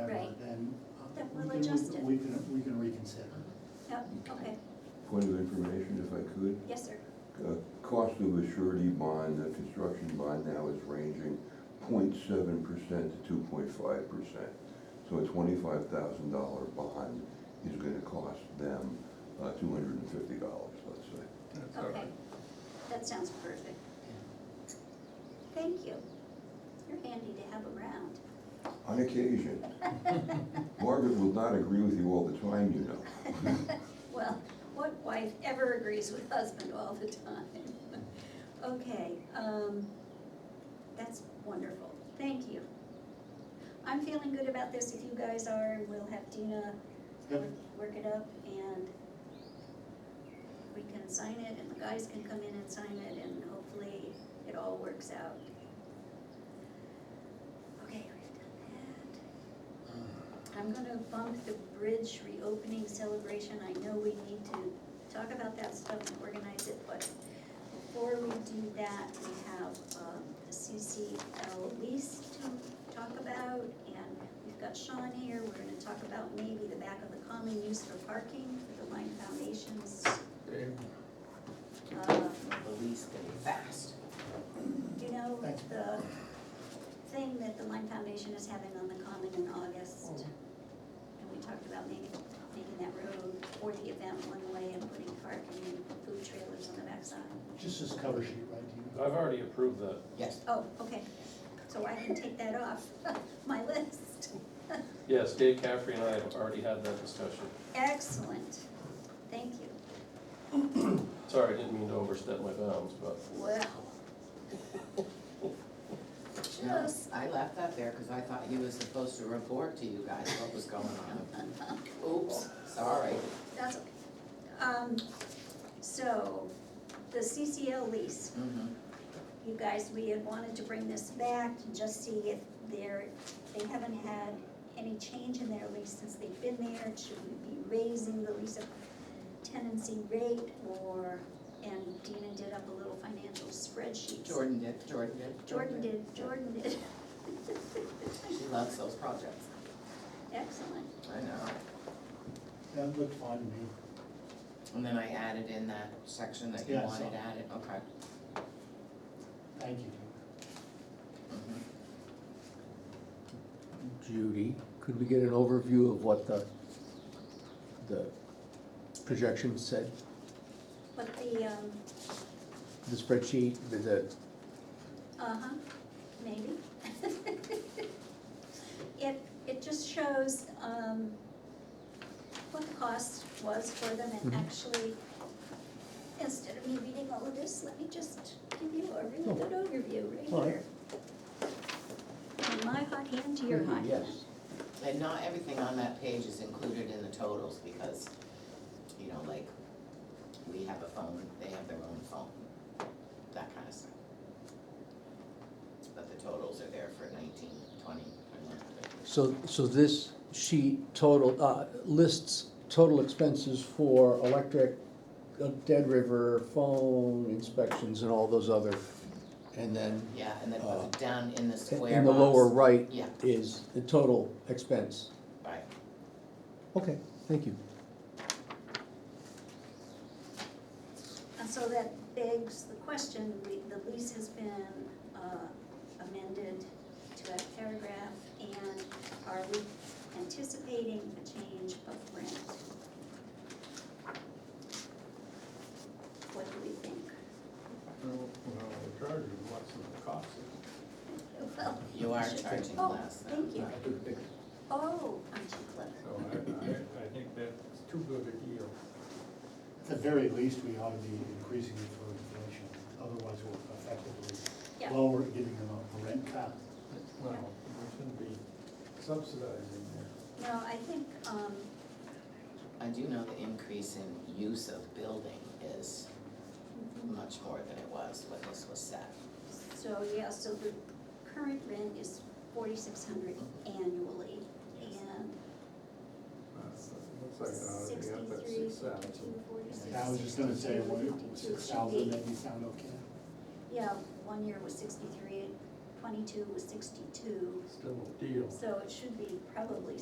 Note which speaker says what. Speaker 1: uh,
Speaker 2: consider.
Speaker 3: Yeah, Oh, okay,
Speaker 4: Point of information, if I could,
Speaker 3: yes, sir.
Speaker 4: uh, cost of a surety bond, the construction bond now is ranging 0.7 percent to two point five percent. So a twenty-five thousand dollar bond is gonna cost them uh, two hundred and fifty dollars, let's say.
Speaker 5: That's all
Speaker 3: Okay.
Speaker 5: right.
Speaker 3: That sounds perfect. Thank you. You're handy to have around.
Speaker 4: On occasion. Margaret will not agree with you all the time, you know.
Speaker 3: Well, what wife ever agrees with husband all the time? Okay, um, that's wonderful, thank you. I'm feeling good about this, if you guys are, and we'll have Dina
Speaker 2: Yep.
Speaker 3: work- work it up, and we can sign it, and the guys can come in and sign it, and hopefully it all works out. Okay, we've done that.
Speaker 1: Uh,
Speaker 3: I'm gonna bump the bridge reopening celebration, I know we need to talk about that stuff and organize it, but before we do that, we have, um, a CCL lease to talk about, and we've got Sean here, we're gonna talk about maybe the back of the common use for parking for the Lime Foundation's, uh,
Speaker 2: The lease getting fast.
Speaker 3: you know,
Speaker 2: Thanks.
Speaker 3: the thing that the Lime Foundation is having on the common in August. And we talked about making, making that road for the event one way and putting parking and food trailers on the backside.
Speaker 1: Just this cover sheet, right? Do you-
Speaker 5: I've already approved that.
Speaker 2: Yes.
Speaker 3: Oh, okay, so I can take that off my list.
Speaker 5: Yes, Dave Caffrey and I have already had that discussion.
Speaker 3: Excellent, thank you.
Speaker 5: Sorry, I didn't mean to overstep my bounds, but
Speaker 3: Well.
Speaker 2: No,
Speaker 3: Just,
Speaker 2: I left that there because I thought he was supposed to report to you guys what was going on. Oops, sorry.
Speaker 3: that's okay. Um, so, the CCL lease.
Speaker 2: Mhm.
Speaker 3: you guys, we had wanted to bring this back and just see if there, they haven't had any change in their lease since they've been there. Should we be raising the lease of tenancy rate or, and Dina did up a little financial spreadsheet.
Speaker 2: Jordan did, Jordan did.
Speaker 3: Jordan did, Jordan did.
Speaker 2: She loves those projects.
Speaker 3: Excellent.
Speaker 2: I know.
Speaker 1: That looked fine to me.
Speaker 2: And then I added in that section that you
Speaker 1: Yeah, I
Speaker 2: wanted
Speaker 1: saw.
Speaker 2: added, okay.
Speaker 1: Thank you.
Speaker 2: Mhm.
Speaker 6: Judy, could we get an overview of what the, the projection said?
Speaker 3: But the, um,
Speaker 6: The spreadsheet, the- the,
Speaker 3: Uh-huh, maybe. It, it just shows, um, what the cost was for them and
Speaker 6: Mhm.
Speaker 3: actually, instead of me reading all of this, let me just give you a really good overview
Speaker 6: Oh. All
Speaker 3: right
Speaker 6: right.
Speaker 3: here. From my hot hand to your hot hand.
Speaker 6: Mm-hmm. yes,
Speaker 2: And not everything on that page is included in the totals because, you know, like, we have a phone, they have their own phone, that kind of stuff. But the totals are there for nineteen, twenty, twenty-one, twenty-two.
Speaker 6: so, so this sheet total, uh, lists total expenses for electric, uh, Dead River, phone inspections and all those other, and then
Speaker 2: Yeah, and then
Speaker 6: Uh,
Speaker 2: down in the square
Speaker 6: in the lower
Speaker 2: box-
Speaker 6: right
Speaker 2: Yeah,
Speaker 6: is the total expense.
Speaker 2: right,
Speaker 6: Okay, thank you.
Speaker 3: And so that begs the question, we- the lease has been uh, amended to that paragraph, and are we anticipating a change of rent? What do we think? Well,
Speaker 2: you are
Speaker 3: should-
Speaker 2: charging
Speaker 3: oh,
Speaker 2: less than.
Speaker 3: Thank you. Oh, aren't you clever?
Speaker 7: So I, I, I think that's too good a deal.
Speaker 1: At the very least, we ought to be increasing it for inflation, otherwise we're effectively
Speaker 3: Yeah.
Speaker 1: lower, giving them a rent cut.
Speaker 7: Well, we shouldn't be subsidizing there.
Speaker 3: No, I think, um,
Speaker 2: I do know the increase in use of building is much more than it was when this was set.
Speaker 3: so, yeah, so the current rent is forty-six hundred annually, and
Speaker 7: Uh, so it Looks like, uh, they got that
Speaker 3: Sixty-three,
Speaker 7: six
Speaker 3: two
Speaker 7: thousand.
Speaker 3: forty-six.
Speaker 1: Yeah, I was just gonna say, what,
Speaker 3: 52,
Speaker 1: six thousand,
Speaker 3: should
Speaker 1: that
Speaker 3: be-
Speaker 1: you sound okay.
Speaker 3: Yeah, one year was sixty-three, twenty-two was sixty-two,
Speaker 7: Still a deal.
Speaker 3: so it should be probably